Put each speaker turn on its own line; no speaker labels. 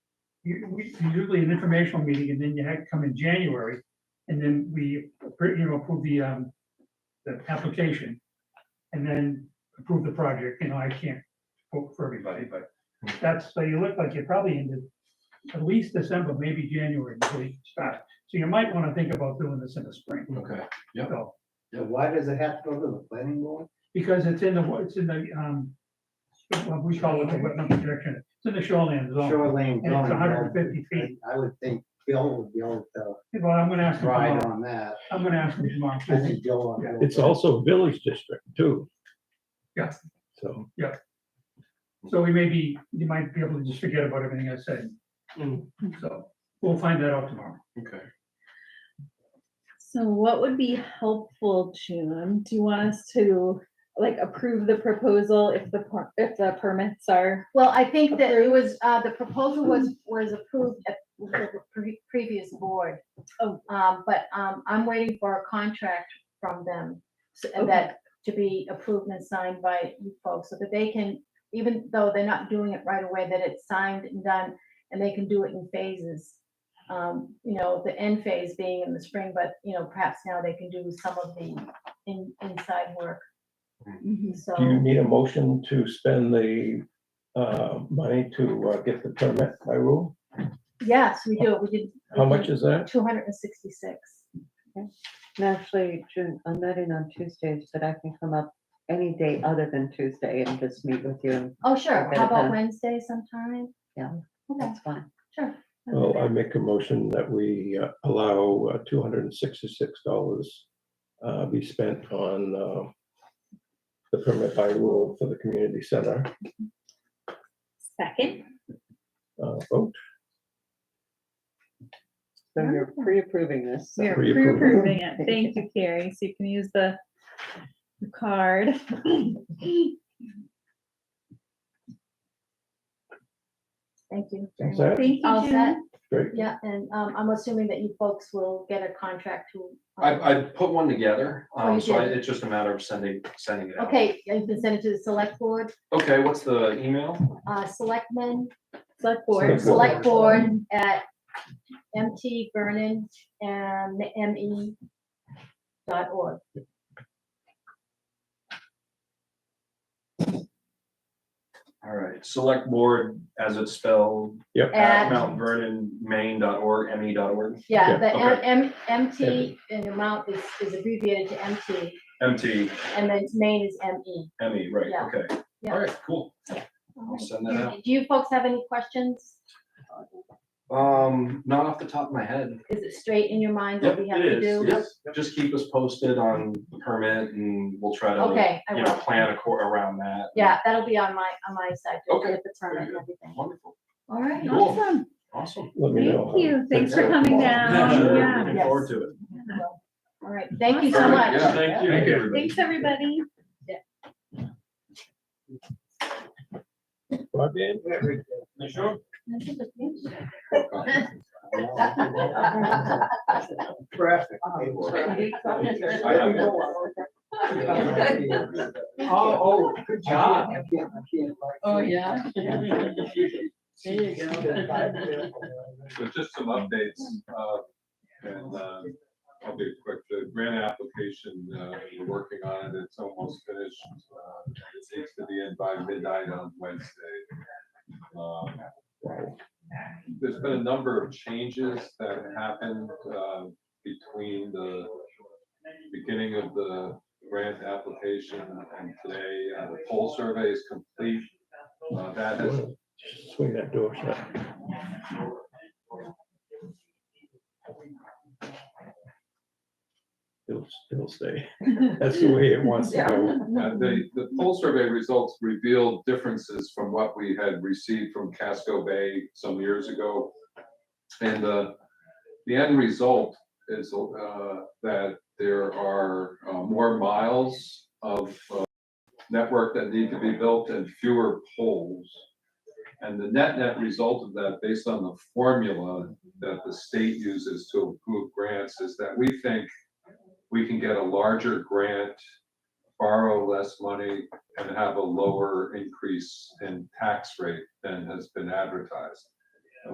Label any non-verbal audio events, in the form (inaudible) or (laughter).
you, we, usually an informational meeting, and then you had to come in January, and then we, appro- you know, approve the, um, the application, and then approve the project, you know, I can't vote for everybody, but that's, so you look like you probably ended at least December, maybe January, before you start, so you might wanna think about doing this in the spring,
Okay,
so,
So why does it have to go to the planning board?
because it's in the, wa- it's in the, um, what we call it the wetland protection, it's in the shoreline zone.
Shoreline
And
zoning.
it's hundred and
well,
fifty feet.
I I would think Bill would be able to
Well, I'm gonna ask him
ride
tomorrow.
on that.
I'm gonna ask him tomorrow.
I think Bill will. be able
It's
to-
also a village district too.
Yeah.
So,
So we may be, you might be able to just forget about everything I said. So we'll find that out tomorrow.
okay.
So what would be helpful, June? Do you want us to like approve the proposal if the, per- if the permits are?
Well, I think that it was, uh, the proposal was, was approved at the pre- previous board.
Oh.
Um, but, um, I'm waiting for a contract from them so- and that to be approved and signed by you folks so that they can, even though they're not doing it right away, that it's signed and done and they can do it in phases. Um, you know, the end phase being in the spring, but, you know, perhaps now they can do some of the in, inside work, so.
do you need a motion to spend the uh, money to uh, get the permit by rule?
Yes, we do. We did.
Mhm.
How much is that?
Two hundred and sixty-six.
And Actually, June, I'm not in on Tuesdays, but I can come up any day other than Tuesday and just meet with you.
Oh, sure.
Okay,
How about
then.
Wednesday sometime?
Yeah.
Okay,
That's fine.
sure.
Well, I make a motion that we uh, allow uh, $266 uh, be spent on uh, the permit by rule for the community center.
Second.
uh, Vote.
So you're pre-approving this. so-
We're
Pre-approval.
pre-approving it. Thank you, Carrie. So you can use the the card.
Thank you. very
Is
much.
that
Thank you,
All set?
June.
great?
Yeah, and um, I'm assuming that you folks will get a contract to. um,
I, I put one together,
Oh,
um,
you
so I-
did.
it's just a matter of sending, sending it out.
Okay, and you can send it to the select board,
Okay, what's the email?
uh, selectmen,
Select board.
Select board.
select board at MT Vernon and ME dot org.
All right, select board as it's spelled at
At-
Mount Vernon, Maine dot org, ME dot org,
Yeah,
Yeah,
the
okay.
M, M, MT and amount is, is abbreviated to MT
MT,
and then main is E. ME.
ME, right,
Yeah.
okay.
Yeah.
All right, cool.
All
I'll
right.
send that out.
Do you folks have any questions?
Um, not off the top of my head.
Is it straight in your mind what
Yep,
we have
it
to
is.
do?
Yep. Just keep us posted on the permit and we'll try to,
Okay, I
you know,
will.
plan a court around that.
Yeah, that'll be on my, on my side. to
Okay,
get The permit and
good.
everything.
Wonderful,
All right.
Cool.
Awesome.
awesome.
Let me know.
Thank you. Thanks for coming
Um,
Yeah,
down.
sure,
Yeah.
Looking
Yes.
forward to it.
All right, thank you so
All right,
much.
yeah, Thank you.
Thank you.
everybody.
Thanks, everybody.
Broadband?
(laughs)
(laughs)
Traffic.
Oh, oh, good job.
Oh,
yeah.
There you go.
So just some updates, uh, and, uh, I'll be quick, the grant application, uh, we're working on it, it's almost finished. Uh, It needs to be in by midnight on Wednesday. Um, There's been a number of changes that happened, uh, between the beginning of the grant application and today. Uh, The poll survey is complete, uh, that has
Swing that door shut. It'll, it'll stay. (laughs) That's the way it wants to go.
Uh, The, the poll survey results revealed differences from what we had received from Casco Bay some years ago. And the, the end result is uh, that there are uh, more miles of uh, network that need to be built and fewer poles. And the net, net result of that, based on the formula that the state uses to approve grants, is that we think we can get a larger grant borrow less money and have a lower increase in tax rate than has been advertised.